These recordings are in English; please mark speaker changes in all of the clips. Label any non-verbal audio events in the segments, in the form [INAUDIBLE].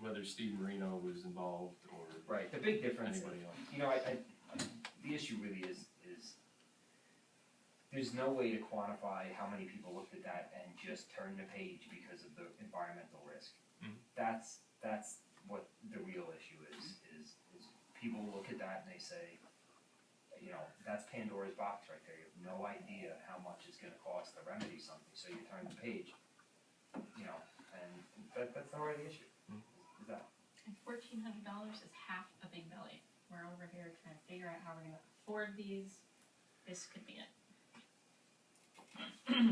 Speaker 1: whether Steve Marino was involved or
Speaker 2: Right, the big difference,
Speaker 1: anybody else.
Speaker 2: you know, I, I, the issue really is, is there's no way to quantify how many people looked at that and just turned the page because of the environmental risk.
Speaker 1: Mhm.
Speaker 2: That's, that's what the real issue is, is, is people look at that and they say, you know, that's Pandora's box right there, you have no idea how much it's gonna cost to remedy something, so you turn the page. You know, and that, that's the heart of the issue,
Speaker 1: Mhm.
Speaker 2: is that.
Speaker 3: And fourteen hundred dollars is half a big belly. We're over here trying to figure out how we're gonna afford these. This could be it.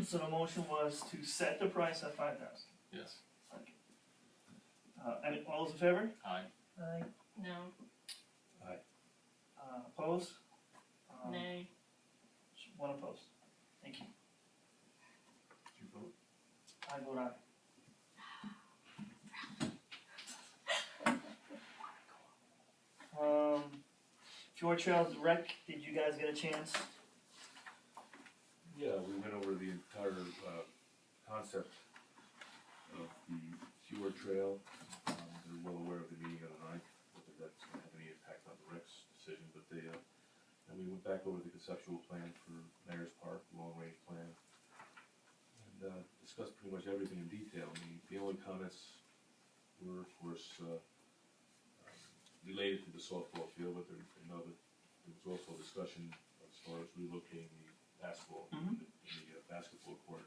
Speaker 4: So the motion was to set the price at five thousand.
Speaker 1: Yes,
Speaker 4: Uh, any, all those in favor?
Speaker 1: aye,
Speaker 4: Aye.
Speaker 3: No,
Speaker 4: Uh, opposed? Um,
Speaker 3: nay,
Speaker 4: One opposed. Thank you.
Speaker 1: did you vote?
Speaker 4: I vote aye. Um, George Trails Rec, did you guys get a chance?
Speaker 5: Yeah, we went over the entire, uh, concept of the sewer trail. Um, they're well aware of the meeting of the ninth, whether that's gonna have any impact on the Rex decision, but they, uh, and we went back over the conceptual plan for Mayor's Park, long-range plan. And, uh, discussed pretty much everything in detail. I mean, the only comments were, of course, uh, um, related to the softball field, but there, you know, but there was also a discussion as far as relocating the basketball,
Speaker 4: Mhm.
Speaker 5: in the uh, basketball court,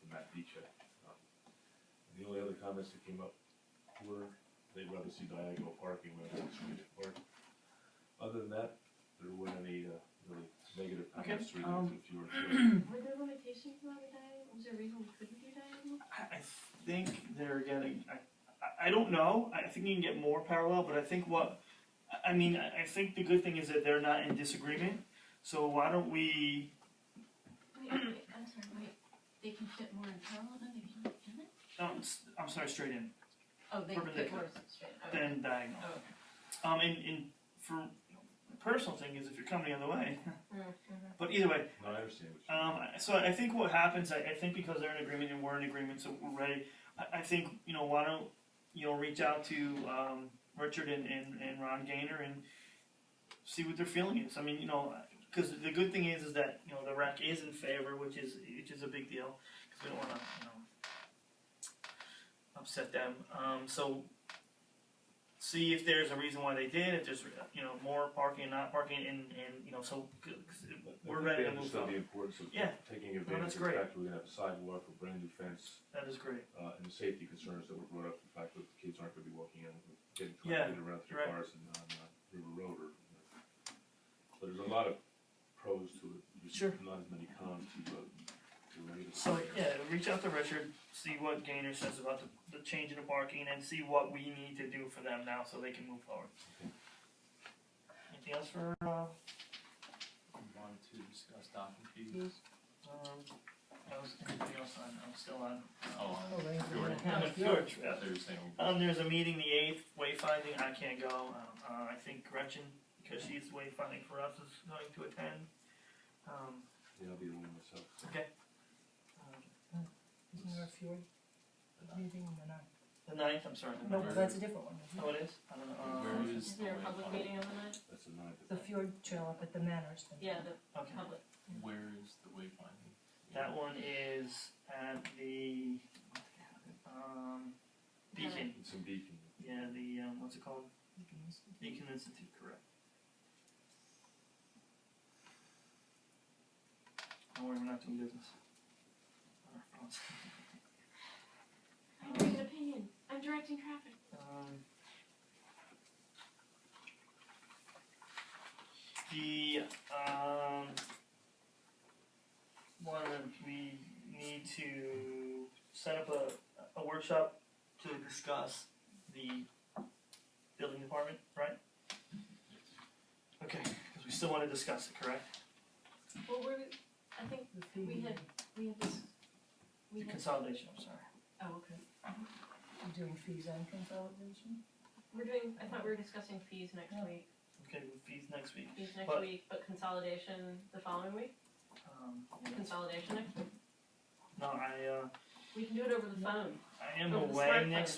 Speaker 5: the Matt Beechek. Um, and The only other comments that came up were, they'd rather see diagonal parking rather than straight park. Other than that, there weren't any, uh, really negative
Speaker 4: Okay,
Speaker 5: comments related
Speaker 4: um,
Speaker 5: to the fewer trails.
Speaker 3: were there limitations on the diet? Was there a reason we couldn't do diagonal?
Speaker 4: I, I think they're getting, I, I- I don't know, I think you can get more parallel, but I think what, I- I mean, I, I think the good thing is that they're not in disagreement, so why don't we,
Speaker 3: Wait, wait, I'm sorry, wait, they can fit more in parallel than they can in it?
Speaker 4: no, it's- I'm sorry, straight in,
Speaker 3: Oh, they can fit more
Speaker 4: Perpendicular.
Speaker 3: straight, okay.
Speaker 4: then diagonal.
Speaker 3: Oh,
Speaker 4: Um, and, and for, the personal thing is if you're coming the other way, [LAUGHS]
Speaker 3: mm, mhm.
Speaker 4: but either way,
Speaker 5: No, I understand what you're.
Speaker 4: Um, so I think what happens, I, I think because they're in agreement and we're in agreement, so we're ready. I, I think, you know, why don't, you know, reach out to, um, Richard and, and, and Ron Gaynor and see what their feeling is. I mean, you know, cause the good thing is, is that, you know, the rec is in favor, which is, which is a big deal. Cause we don't wanna, you know, upset them. Um, so see if there's a reason why they did, if there's, you know, more parking and not parking and, and, you know, so, 'cause it-
Speaker 5: But I
Speaker 4: we're
Speaker 5: think
Speaker 4: ready
Speaker 5: they
Speaker 4: to move
Speaker 5: understood
Speaker 4: on.
Speaker 5: The importance of
Speaker 4: Yeah.
Speaker 5: taking advantage
Speaker 4: that's
Speaker 5: of the
Speaker 4: great.
Speaker 5: fact that we're gonna have a sidewalk, a brand new fence,
Speaker 4: That is great.
Speaker 5: uh, and the safety concerns that were brought up, the fact that the kids aren't gonna be walking in, getting
Speaker 4: Yeah,
Speaker 5: trying to get around their
Speaker 4: right.
Speaker 5: cars and on uh, River Road or. But there's a lot of pros to it,
Speaker 4: Sure.
Speaker 5: there's not as many cons to, uh, to any of the.
Speaker 4: So yeah, reach out to Richard, see what Gaynor says about the, the change in the parking, and see what we need to do for them now so they can move forward.
Speaker 5: Okay.
Speaker 4: Anything else for uh,
Speaker 1: We wanted to discuss docking fees.
Speaker 4: um, that was anything else on? I'm still on.
Speaker 1: Oh,
Speaker 6: Oh, thank you.
Speaker 1: George.
Speaker 4: I'm on George.
Speaker 1: yeah, they were saying,
Speaker 4: Um, there's a meeting the eighth, wayfinding. I can't go. Um, uh, I think Gretchen, because she's wayfinding for us, is going to attend. Um,
Speaker 5: Yeah, I'll be the one myself.
Speaker 4: um,
Speaker 6: Isn't there a few, anything or not?
Speaker 4: uh, the ninth. I'm sorry. the
Speaker 6: No,
Speaker 4: ninth.
Speaker 6: that's a different one. isn't it?
Speaker 4: Oh, it is. I don't know.
Speaker 1: where
Speaker 4: Um,
Speaker 1: is
Speaker 3: Uh, Is
Speaker 1: the
Speaker 3: there a public
Speaker 1: wayfinding?
Speaker 3: meeting on the night?
Speaker 5: That's a nine.
Speaker 6: The fjord trail up at the manors. thing.
Speaker 3: Yeah, the
Speaker 4: okay.
Speaker 3: public.
Speaker 1: Where is the wayfinding?
Speaker 4: That one is at the, um, Beacon,
Speaker 5: It's in Beacon.
Speaker 4: yeah, the, um, what's it called?
Speaker 6: You can use it.
Speaker 4: Beacon Institute, correct. Don't worry, we're not doing business. On our phones.
Speaker 3: I'm giving an opinion. I'm directing traffic.
Speaker 4: Um, The, um, one that we need to set up a, a workshop to discuss the building department, right? Okay, because we still wanna discuss it, correct?
Speaker 3: Well, we're, I think
Speaker 6: The fee.
Speaker 3: we had, we had this, we
Speaker 4: The
Speaker 3: had,
Speaker 4: consolidation, I'm sorry.
Speaker 3: oh, okay.
Speaker 6: You're doing fees on consolidation?
Speaker 3: We're doing, I thought we were discussing fees next
Speaker 6: Yeah.
Speaker 3: week,
Speaker 4: Okay, fees next week.
Speaker 3: fees next
Speaker 4: But-
Speaker 3: week, but consolidation the following week,
Speaker 4: Um,
Speaker 3: consolidation next week.
Speaker 4: no, I, uh,
Speaker 3: We can do it over the phone.
Speaker 4: I am
Speaker 3: Over the
Speaker 4: away
Speaker 3: smartphone.
Speaker 4: next